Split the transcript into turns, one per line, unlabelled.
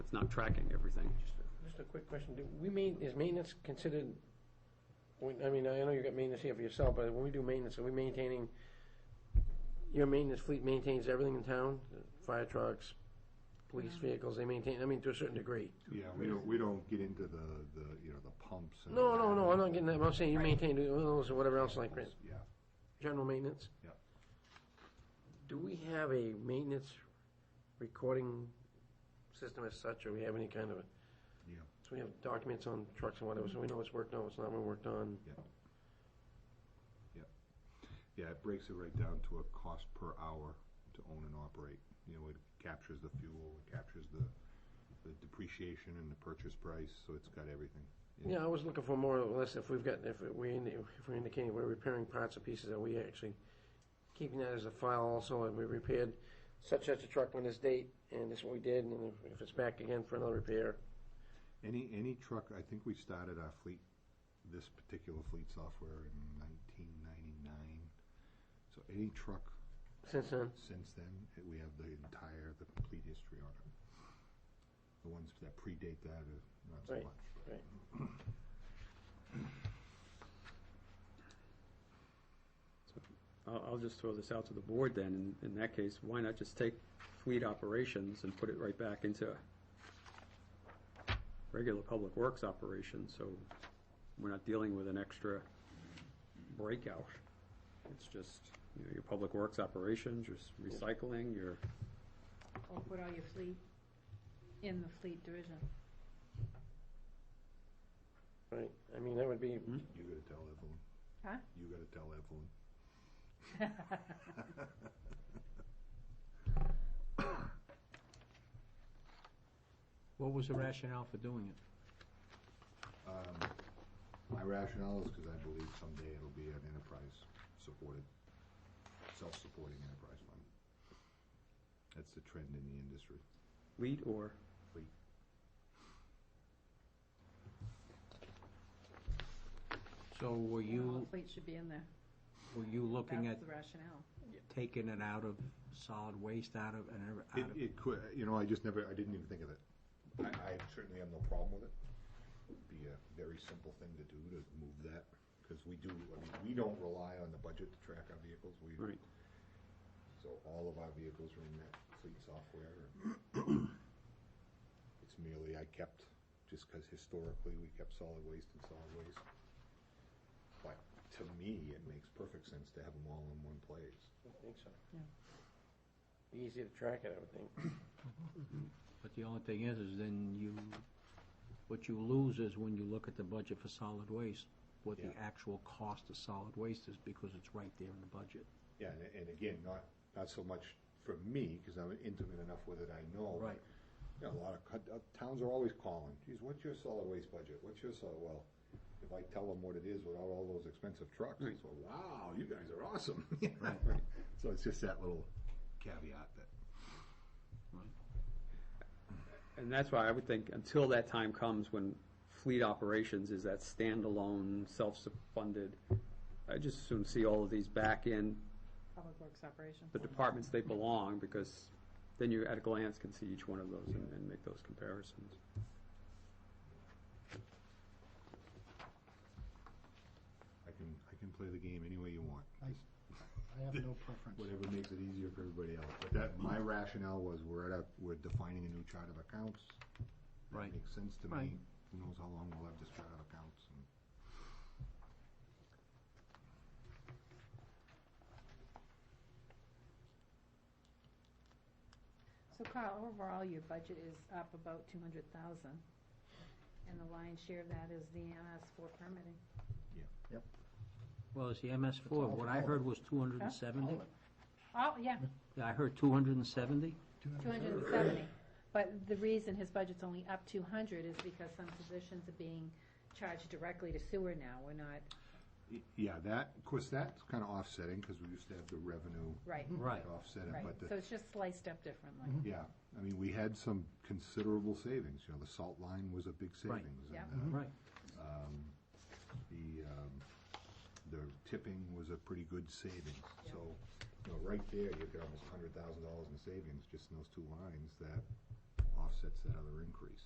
it's not tracking everything.
Just a quick question, do we main, is maintenance considered, when- I mean, I know you got maintenance here for yourself, but when we do maintenance, are we maintaining, your maintenance fleet maintains everything in town? Fire trucks, police vehicles, they maintain, I mean, to a certain degree.
Yeah, we don't, we don't get into the, the, you know, the pumps and.
No, no, no, I'm not getting that, I'm saying you maintain those or whatever else like that,
Yeah,
general maintenance?
yeah.
Do we have a maintenance recording system as such, or we have any kind of, a-
Yeah,
so we have documents on trucks and whatever, so we know what's worked on, what's not been worked on?
yeah. Yeah. Yeah, it breaks it right down to a cost per hour to own and operate. You know, it captures the fuel, it captures the, the depreciation and the purchase price, so it's got everything.
Yeah, I was looking for more or less if we've got, if we, if we're indicating we're repairing parts or pieces, are we actually keeping that as a file also, and we repaired such, such a truck on this date, and this is what we did, and if- if it's back again for another repair?
Any, any truck, I think we started our fleet, this particular fleet software in nineteen ninety-nine. So any truck
Since then,
since then, it- we have the entire, the complete history on it. The ones that predate that are not so
Right.
much.
right.
I'll, I'll just throw this out to the board then, in, in that case, why not just take fleet operations and put it right back into regular public works operations, so we're not dealing with an extra breakout. It's just, you know, your public works operations, your s- recycling, your,
Or put all your fleet in the fleet division.
Right, I mean, that would be,
You gotta tell Evelyn,
Huh?
you gotta tell Evelyn.
What was the rationale for doing it?
Um, My rationale is because I believe someday it'll be an enterprise supported, self-supporting enterprise fund. That's the trend in the industry.
fleet or,
Fleet.
So
All
were you,
the fleet should be in there.
were you looking
That's
at
the rationale.
taking it out of solid waste, out of, and ev-
It,
out of,
it could, you know, I just never, I didn't even think of it. I, I certainly have no problem with it. Be a very simple thing to do to move that, because we do, I mean, we don't rely on the budget to track our vehicles. We,
right,
so all of our vehicles are in that fleet software. It's merely I kept, just because historically we kept solid waste and solid waste. But to me, it makes perfect sense to have them all in one place.
I think so.
Yeah.
Be Easy to track it, I would think.
but the only thing is, is then you, what you lose is when you look at the budget for solid waste, what the
Yeah.
actual cost of solid waste is, because it's right there in the budget.
Yeah, and, and again, not, not so much for me, because I'm intimate enough with it, I know. but,
Right.
you know, a lot of, co- uh, towns are always calling, geez, what's your solid waste budget, what's your solid, well, if I tell them what it is without all those expensive trucks, it's, well, wow, you guys are awesome. So it's just that little caveat that.
And that's why I would think, until that time comes when fleet operations is that standalone, self-funded, I just soon see all of these back in
Public Works operation.
the departments they belong, because then you at a glance can see each one of those and, and make those comparisons.
I can, I can play the game any way you want. Just
I have no preference.
Whatever makes it easier for everybody else. But that, my rationale was, we're at a, we're defining a new chart of accounts.
Right.
That makes sense to me.
Right.
Who knows how long we'll have this chart of accounts and.
So Carl, overall, your budget is up about two hundred thousand. And the lion's share of that is the MS four permitting.
Yeah. Yep.
Well, it's the MS four, what I heard was two hundred and seventy,
Oh, yeah,
I heard two hundred and seventy?
two hundred and seventy. But the reason his budget's only up two hundred is because some positions are being charged directly to sewer now. We're not,
Y- Yeah, that, of course, that's kind of offsetting because we used to have the revenue
right,
Right.
offset it,
right.
but
So
the,
it's just sliced up differently.
yeah, I mean, we had some considerable savings, you know, the salt line was a big
Right.
savings.
Yeah.
and,
Mm-hmm.
uh,
Right,
The, um, the tipping was a pretty good savings, so, you know, right there, you've got almost hundred thousand dollars in savings, just in those two lines that offsets that other increase.